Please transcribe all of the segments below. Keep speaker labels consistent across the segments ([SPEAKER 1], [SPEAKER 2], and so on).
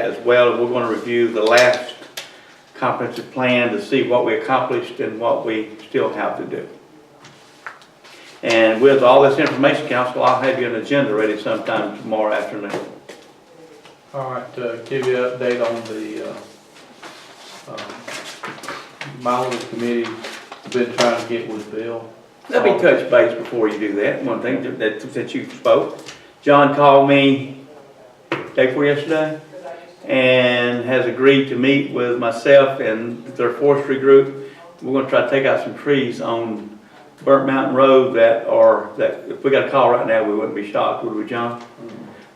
[SPEAKER 1] As well, we're gonna review the last comprehensive plan to see what we accomplished and what we still have to do. And with all this information, council, I'll have you an agenda ready sometime tomorrow afternoon.
[SPEAKER 2] All right, uh, give you an update on the, uh, um, Milan Committee, been trying to get with Bill.
[SPEAKER 1] Let me touch base before you do that, one thing that- that, that you spoke. John called me day before yesterday and has agreed to meet with myself and their forestry group. We're gonna try to take out some trees on Burnt Mountain Road that are, that, if we got a call right now, we wouldn't be shocked, would we, John?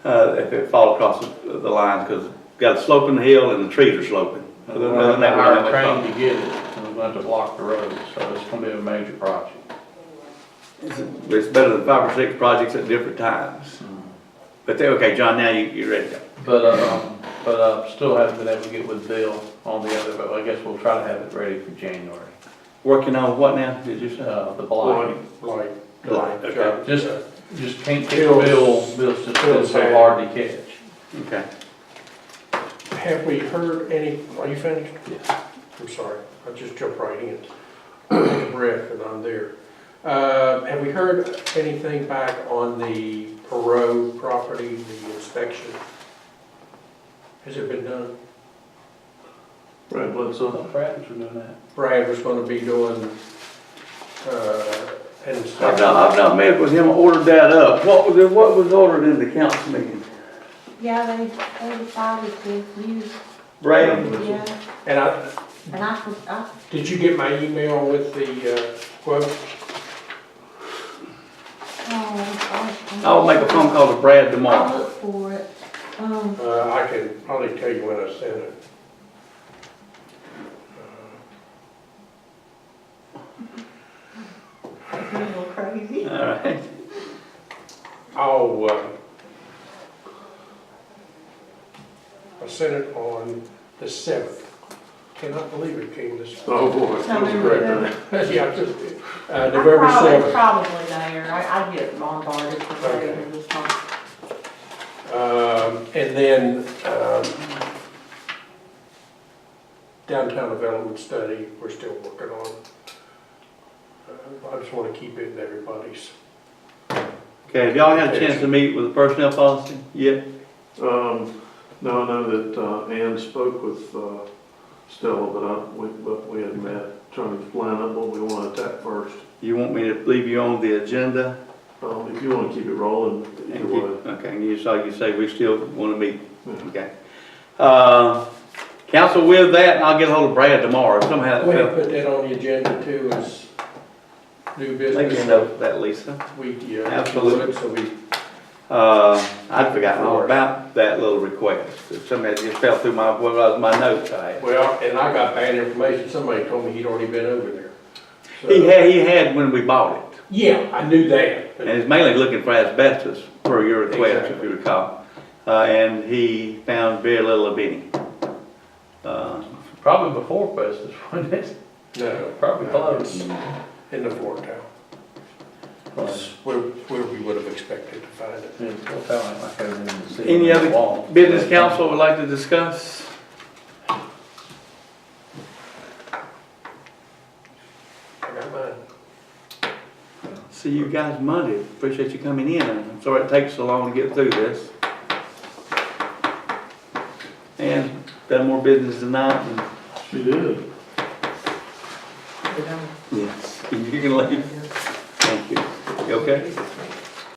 [SPEAKER 1] Uh, if it fall across the, the lines, cause got a slope in the hill and the trees are sloping. Other than that, we're not
[SPEAKER 2] Hire
[SPEAKER 1] much
[SPEAKER 2] a
[SPEAKER 1] problem.
[SPEAKER 2] train to get it, and we're going to block the road, so it's gonna be a major project.
[SPEAKER 1] It's better than five or six projects at different times. But they, okay, John, now you, you're ready to go.
[SPEAKER 2] But, um, but I still haven't been able to get with Bill on the other, but I guess we'll try to have it ready for January,
[SPEAKER 1] Working on what now, did you say?
[SPEAKER 2] uh, the block.
[SPEAKER 3] Like,
[SPEAKER 1] Blight, okay,
[SPEAKER 2] Just, just can't catch
[SPEAKER 3] Bill's-
[SPEAKER 2] Bill, Bill's just been
[SPEAKER 3] Bill's
[SPEAKER 2] so
[SPEAKER 3] had-
[SPEAKER 2] hard to catch.
[SPEAKER 1] okay.
[SPEAKER 3] have we heard any, are you finished?
[SPEAKER 2] Yes.
[SPEAKER 3] I'm sorry, I just jumped right in. Take a Breath and I'm there. Uh, have we heard anything back on the Perot property, the inspection? Has it been done?
[SPEAKER 2] Right, what's up? Brad's doing that.
[SPEAKER 3] Brad was gonna be doing, uh, an
[SPEAKER 1] I've not,
[SPEAKER 3] inspection.
[SPEAKER 1] I've not met with him, ordered that up. What was, what was ordered in the council meeting?
[SPEAKER 4] Yeah, they, they decided to use,
[SPEAKER 1] Brad?
[SPEAKER 4] yeah,
[SPEAKER 3] And I,
[SPEAKER 4] and I, could- I, um,
[SPEAKER 3] did you get my email with the, uh, quote?
[SPEAKER 4] oh, I'm.
[SPEAKER 1] I'll make a phone call to Brad
[SPEAKER 4] I'll
[SPEAKER 1] tomorrow.
[SPEAKER 4] look for it, um,
[SPEAKER 3] Uh, I can probably tell you when I sent it.
[SPEAKER 4] it's a little crazy.
[SPEAKER 1] All right,
[SPEAKER 3] I'll, uh, I sent it on the seventh. Cannot believe it came this.
[SPEAKER 5] Oh, boy. that was
[SPEAKER 4] November
[SPEAKER 5] great.
[SPEAKER 4] seventh.
[SPEAKER 3] Yeah, I just, uh,
[SPEAKER 4] I
[SPEAKER 3] November
[SPEAKER 4] probably-
[SPEAKER 3] seventh.
[SPEAKER 4] Probably there, I, I get bombarded for
[SPEAKER 3] Okay.
[SPEAKER 4] whatever this month.
[SPEAKER 3] Um, and then, um, downtown development study, we're still working on. Uh, I just wanna keep it in everybody's.
[SPEAKER 1] okay, have y'all had a chance to meet with the personnel policy yet?
[SPEAKER 5] Um, no, I know that, uh, Ann spoke with, uh, Stella, but I, we, but we had met, trying to plan up what we want to attack first.
[SPEAKER 1] You want me to leave you on the agenda?
[SPEAKER 5] Um, if you want to keep it rolling,
[SPEAKER 1] And
[SPEAKER 5] either
[SPEAKER 1] keep-
[SPEAKER 5] way.
[SPEAKER 1] Okay, and you saw, you say we still wanna meet,
[SPEAKER 5] Mhm.
[SPEAKER 1] okay. Uh, council with that, and I'll get hold of Brad tomorrow, somehow. that
[SPEAKER 3] We
[SPEAKER 1] fell-
[SPEAKER 3] have put that on the agenda too, is new
[SPEAKER 1] Make a
[SPEAKER 3] business
[SPEAKER 1] note of that, Lisa.
[SPEAKER 3] week, yeah.
[SPEAKER 1] Absolutely.
[SPEAKER 3] So we
[SPEAKER 1] Uh, I'd forgotten all about that little request. Somebody just fell through my, what was my notes I had.
[SPEAKER 3] Well, and I got bad information, somebody told me he'd already been over there. So-
[SPEAKER 1] He had, he had when we bought it,
[SPEAKER 3] Yeah, I knew that.
[SPEAKER 1] and he's mainly looking for asbestos per your request, if
[SPEAKER 3] Exactly.
[SPEAKER 1] you recall. Uh, and he found very little of any. Uh,
[SPEAKER 2] Probably before Christmas, wasn't it?
[SPEAKER 3] No.
[SPEAKER 2] Probably close.
[SPEAKER 1] Mm.
[SPEAKER 3] In the Fort Town. That's Where, where we would have expected to find it.
[SPEAKER 2] Yeah, it's all kind of like I didn't see it
[SPEAKER 1] Any
[SPEAKER 2] on the
[SPEAKER 1] other
[SPEAKER 2] wall.
[SPEAKER 1] Business council would like to discuss?
[SPEAKER 3] I got mine.
[SPEAKER 1] See you guys Monday. Appreciate you coming in. I'm sorry it takes so long to get through this. And done more business tonight and
[SPEAKER 5] She did.
[SPEAKER 1] Yes, you can leave. Thank you. You okay?